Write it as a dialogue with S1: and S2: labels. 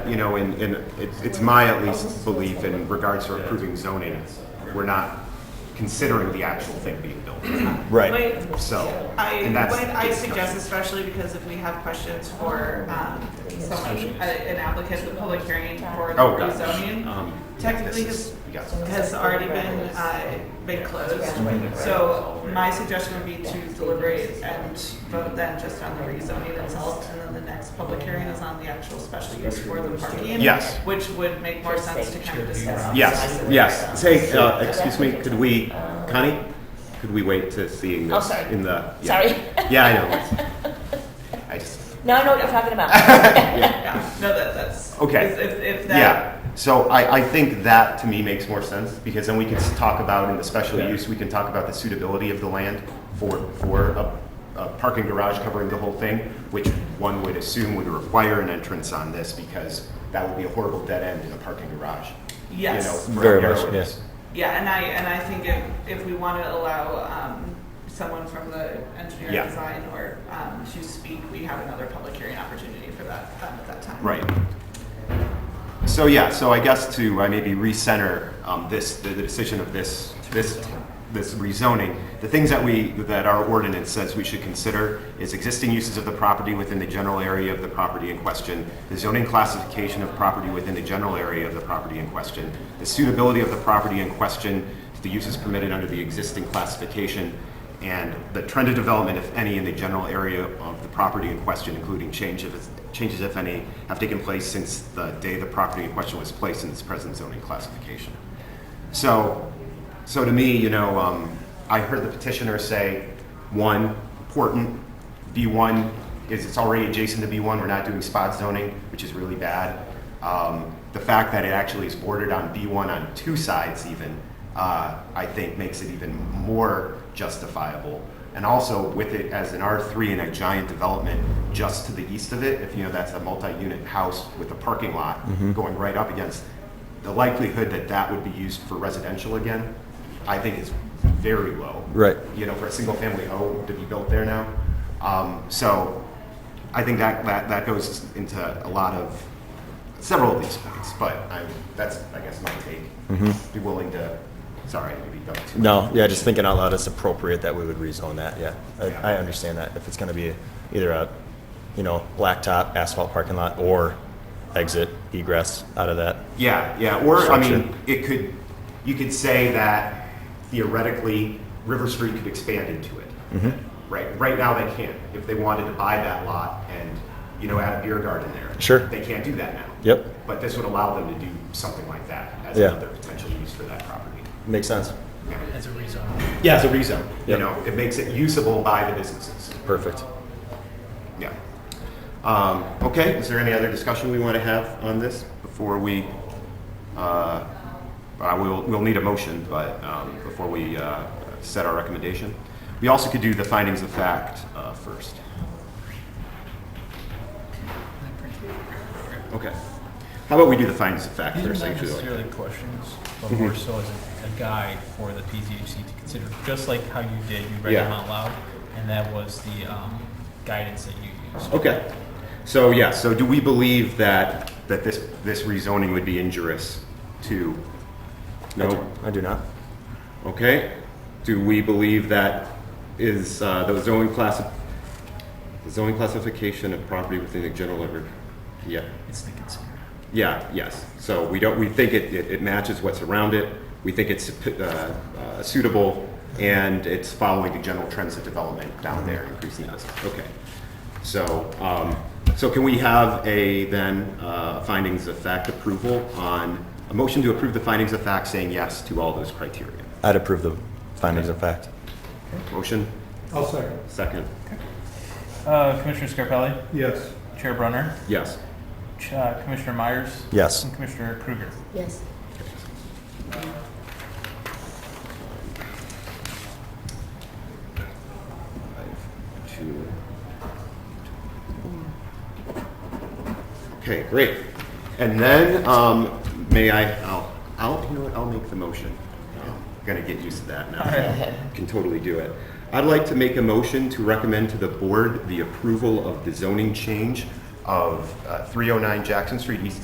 S1: you know, and, and it's, it's my at least belief in regards to approving zoning, we're not considering the actual thing being built.
S2: Right.
S3: What-
S1: So,
S3: I,
S1: and that's.
S3: what I
S1: discussion.
S3: suggest, especially because if we have questions for, um, someone, a- an applicant, the public hearing for the
S1: Oh, gosh.
S3: rezoning
S1: Um,
S3: technically
S1: this is-
S3: has,
S1: we got-
S3: has already been, uh, been closed. So my suggestion would be to deliberate and vote then just on the rezoning itself, and then the next public hearing is on the actual special use for the parking.
S1: Yes.
S3: Which would make more sense to kind of discuss.
S1: Yes, yes. Say, uh, excuse me, could we, Connie, could we wait to seeing
S4: Oh,
S1: this
S4: sorry.
S1: in the? yeah.
S4: Sorry.
S1: Yeah, I know. I just,
S4: No, I know what you're talking about.
S1: yeah.
S3: Yeah, no, that, that's.
S1: Okay.
S3: If, if- if that,
S1: Yeah, so I, I think that to me makes more sense, because then we can s- talk about in the special
S5: Yeah.
S1: use, we can talk about the suitability of the land for, for a, a parking garage covering the whole thing, which one would assume would require an entrance on this, because that would be a horrible dead end in a parking garage. you
S3: Yes.
S1: know, for
S2: Very
S1: our
S2: much,
S1: roads.
S2: yes.
S3: Yeah, and I, and I think if, if we want to allow um, someone from the engineering
S1: Yeah.
S3: design or um, to speak, we have another public hearing opportunity for that um, at that time.
S1: Right. So yeah, so I guess to uh, maybe recenter um, this, the, the decision of this, this, this rezoning, the things that we, that our ordinance says we should consider is existing uses of the property within the general area of the property in question, the zoning classification of property within the general area of the property in question, the suitability of the property in question to the uses permitted under the existing classification, and the trend of development, if any, in the general area of the property in question, including change if, changes, if any, have taken place since the day the property in question was placed in its present zoning classification. So, so to me, you know, um, I heard the petitioner say, one, important, B1 is, it's already adjacent to B1, we're not doing spot zoning, which is really bad. Um, the fact that it actually is bordered on B1 on two sides even, uh, I think makes it even more justifiable. And also with it as an R3 and a giant development just to the east of it, if you know that's a multi-unit house with a parking lot going right up against, the likelihood that that would be used for residential again, I think is very low.
S2: Right.
S1: You know, for a single family home to be built there now. Um, so I think that, that, that goes into a lot of, several of these points, but I, that's, I guess, my take. Be willing to, sorry, maybe don't too much.
S2: Mm-hmm. No, yeah, just thinking out loud, it's appropriate that we would rezone that, yeah.
S1: Yeah.
S2: I, I understand that, if it's gonna be either a, you know, blacktop asphalt parking lot or exit egress out of that.
S1: Yeah, yeah. Or I mean,
S2: Structure.
S1: it could you could say that theoretically River Street could expand into it.
S2: Mm-hmm.
S1: Right. Right now they can't. If they wanted to buy that lot and you know add a beer garden there,
S2: Sure.
S1: they can't do that now.
S2: Yep.
S1: But this would allow them to do something like that as
S2: Yeah.
S1: another potential use for that property.
S2: Makes sense.
S6: As a rezon.
S1: Yeah, as a rezone. You
S2: Yep.
S1: know, it makes it usable by the businesses.
S2: Perfect.
S1: Yeah. Um, okay, is there any other discussion we want to have on this before we, uh, uh, we'll, we'll need a motion, but, um, before we, uh, set our recommendation? We also could do the findings of fact, uh, first. Okay. How about we do the findings of fact
S6: These
S1: first?
S6: are not
S1: actually? Mm-hmm.
S6: necessarily questions, but more so as a a guide for the PZHC to consider, just like how you did, you read them
S1: Yeah.
S6: out loud, and that was the um, guidance that you used.
S1: Okay. So, yeah, so do we believe that, that this, this rezoning would be injurious to?
S2: I
S1: No?
S2: do- I do not.
S1: Okay, do we believe that is uh, the zoning classi- the zoning classification of property within the general area? Yeah,
S6: It's to consider.
S1: yeah, yes. So we don't, we think it, it it matches what's around it. We think it's uh, uh, suitable and it's following the general trends of development down there, increasing the business. Okay. So, um, so can we have a then uh, findings of fact approval on, a motion to approve the findings of fact saying yes to all those criteria?
S2: I'd approve the findings of fact.
S1: Motion,
S7: I'll second.
S1: second.
S8: Uh, Commissioner Scarpelli,
S7: Yes.
S8: Chair Brunner,
S1: Yes.
S8: Ch- uh, Commissioner Myers,
S2: Yes.
S8: and Commissioner Kruger.
S4: Yes.
S1: Two. Okay, great. And then, um, may I, I'll, I'll, you know what, I'll make the motion. I'm Gonna get used to that now. Can totally do it. I'd like to make a motion to recommend to the board the approval of the zoning change of uh, 309 Jackson Street East